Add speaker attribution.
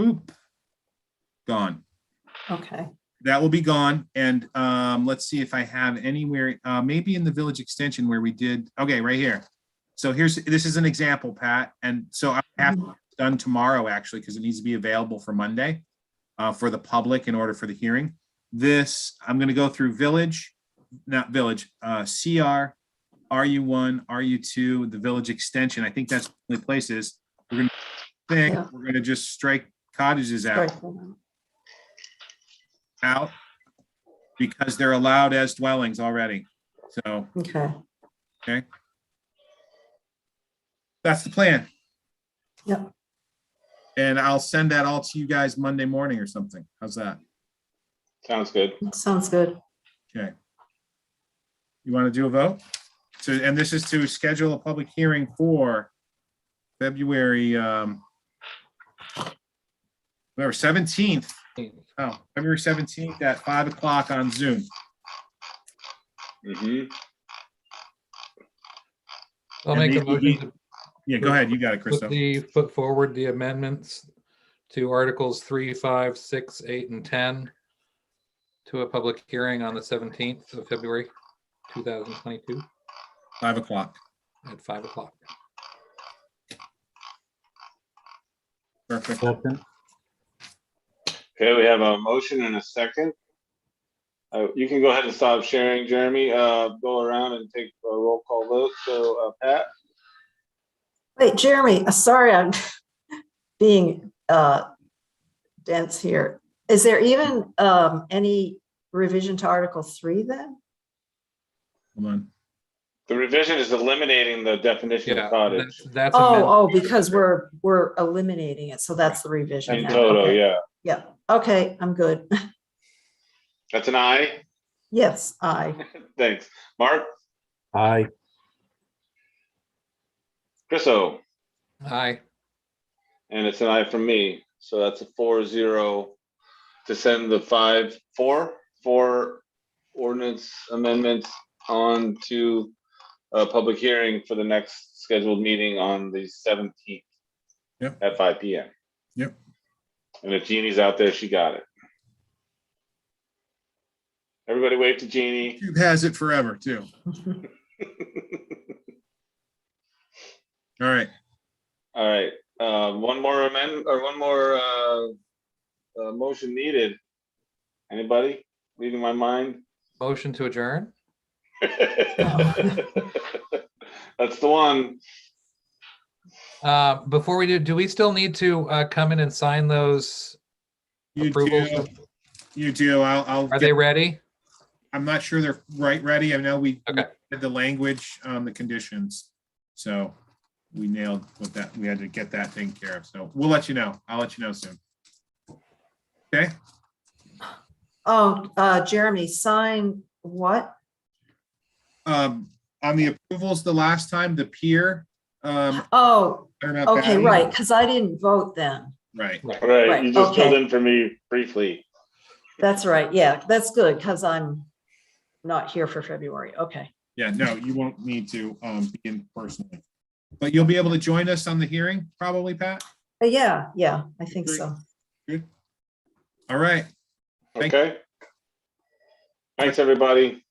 Speaker 1: Oop. Gone.
Speaker 2: Okay,
Speaker 1: That will be gone. And um, let's see if I have anywhere, uh, maybe in the village extension where we did, okay, right here. So here's, this is an example, Pat. And so I have it done tomorrow, actually, because it needs to be available for Monday uh, for the public in order for the hearing. This, I'm going to go through village, not village, uh, CR, RU1, RU2, the village extension. I think that's the places. We're going to
Speaker 2: Yeah.
Speaker 1: think, we're going to just strike cottages out
Speaker 2: great.
Speaker 1: out because they're allowed as dwellings already. So
Speaker 2: Okay,
Speaker 1: that's the plan.
Speaker 2: Yep.
Speaker 1: And I'll send that all to you guys Monday morning or something. How's that?
Speaker 3: Sounds good.
Speaker 2: sounds good.
Speaker 1: Okay. You want to do a vote? So, and this is to schedule a public hearing for February, um, whatever, seventeenth. Oh, February seventeenth at five o'clock on Zoom.
Speaker 3: hmm
Speaker 4: I'll
Speaker 1: And
Speaker 4: make
Speaker 1: these
Speaker 4: a
Speaker 1: will
Speaker 4: motion
Speaker 1: Yeah, go ahead. You got it,
Speaker 4: to put
Speaker 1: Christo.
Speaker 4: the, put forward the amendments to Articles three, five, six, eight, and ten to a public hearing on the seventeenth of February, two thousand twenty-two
Speaker 1: Five o'clock.
Speaker 4: at five o'clock.
Speaker 1: Perfect.
Speaker 3: Okay, we have a motion and a second. Uh, you can go ahead and stop sharing, Jeremy. Uh, go around and take a roll call vote. So, uh, Pat?
Speaker 2: Wait, Jeremy, uh, sorry, I'm being uh dense here. Is there even um any revision to Article Three then?
Speaker 1: Hold on.
Speaker 3: The revision is eliminating the definition
Speaker 4: Yeah,
Speaker 3: of cottage.
Speaker 4: that's, that's.
Speaker 2: Oh, oh,
Speaker 4: amendment.
Speaker 2: because we're, we're eliminating it, so that's the revision.
Speaker 3: In
Speaker 2: then.
Speaker 3: total,
Speaker 2: Okay.
Speaker 3: yeah.
Speaker 2: Yeah, okay, I'm good.
Speaker 3: That's an aye.
Speaker 2: Yes, I,
Speaker 3: Thanks. Mark?
Speaker 5: Aye.
Speaker 3: Chriso?
Speaker 4: Aye,
Speaker 3: And it's an aye from me. So that's a four zero to send the five, four, four ordinance amendments on to a public hearing for the next scheduled meeting on the seventeenth.
Speaker 1: Yep.
Speaker 3: At five P M.
Speaker 1: Yep.
Speaker 3: And if Jeannie's out there, she got it. Everybody wave to Jeannie.
Speaker 1: Cube has it forever too. All right.
Speaker 3: All right, uh, one more amendment or one more, uh, uh, motion needed. Anybody reading my mind?
Speaker 4: motion to adjourn?
Speaker 3: That's the one.
Speaker 4: Uh, before we do, do we still need to, uh, come in and sign those?
Speaker 1: You
Speaker 4: Approvals.
Speaker 1: do, you do. I'll, I'll,
Speaker 4: Are
Speaker 1: get-
Speaker 4: they ready?
Speaker 1: I'm not sure they're right ready. I know we
Speaker 4: Okay.
Speaker 1: did the language on the conditions. So we nailed what that, we had to get that taken care of. So we'll let you know. I'll let you know soon. Okay,
Speaker 2: oh, uh, Jeremy, sign what?
Speaker 1: um, on the approvals, the last time, the pier, um.
Speaker 2: Oh,
Speaker 1: turnout
Speaker 2: Okay,
Speaker 1: battery-
Speaker 2: right, because I didn't vote then.
Speaker 1: Right.
Speaker 3: All right,
Speaker 2: Right,
Speaker 3: you just
Speaker 2: okay.
Speaker 3: filled in for me briefly.
Speaker 2: That's right, yeah, that's good, because I'm not here for February, okay.
Speaker 1: Yeah, no, you won't need to, um, be in personally. But you'll be able to join us on the hearing probably, Pat?
Speaker 2: But yeah, yeah, I think so.
Speaker 1: All right. Thank-
Speaker 3: Okay. Thanks, everybody.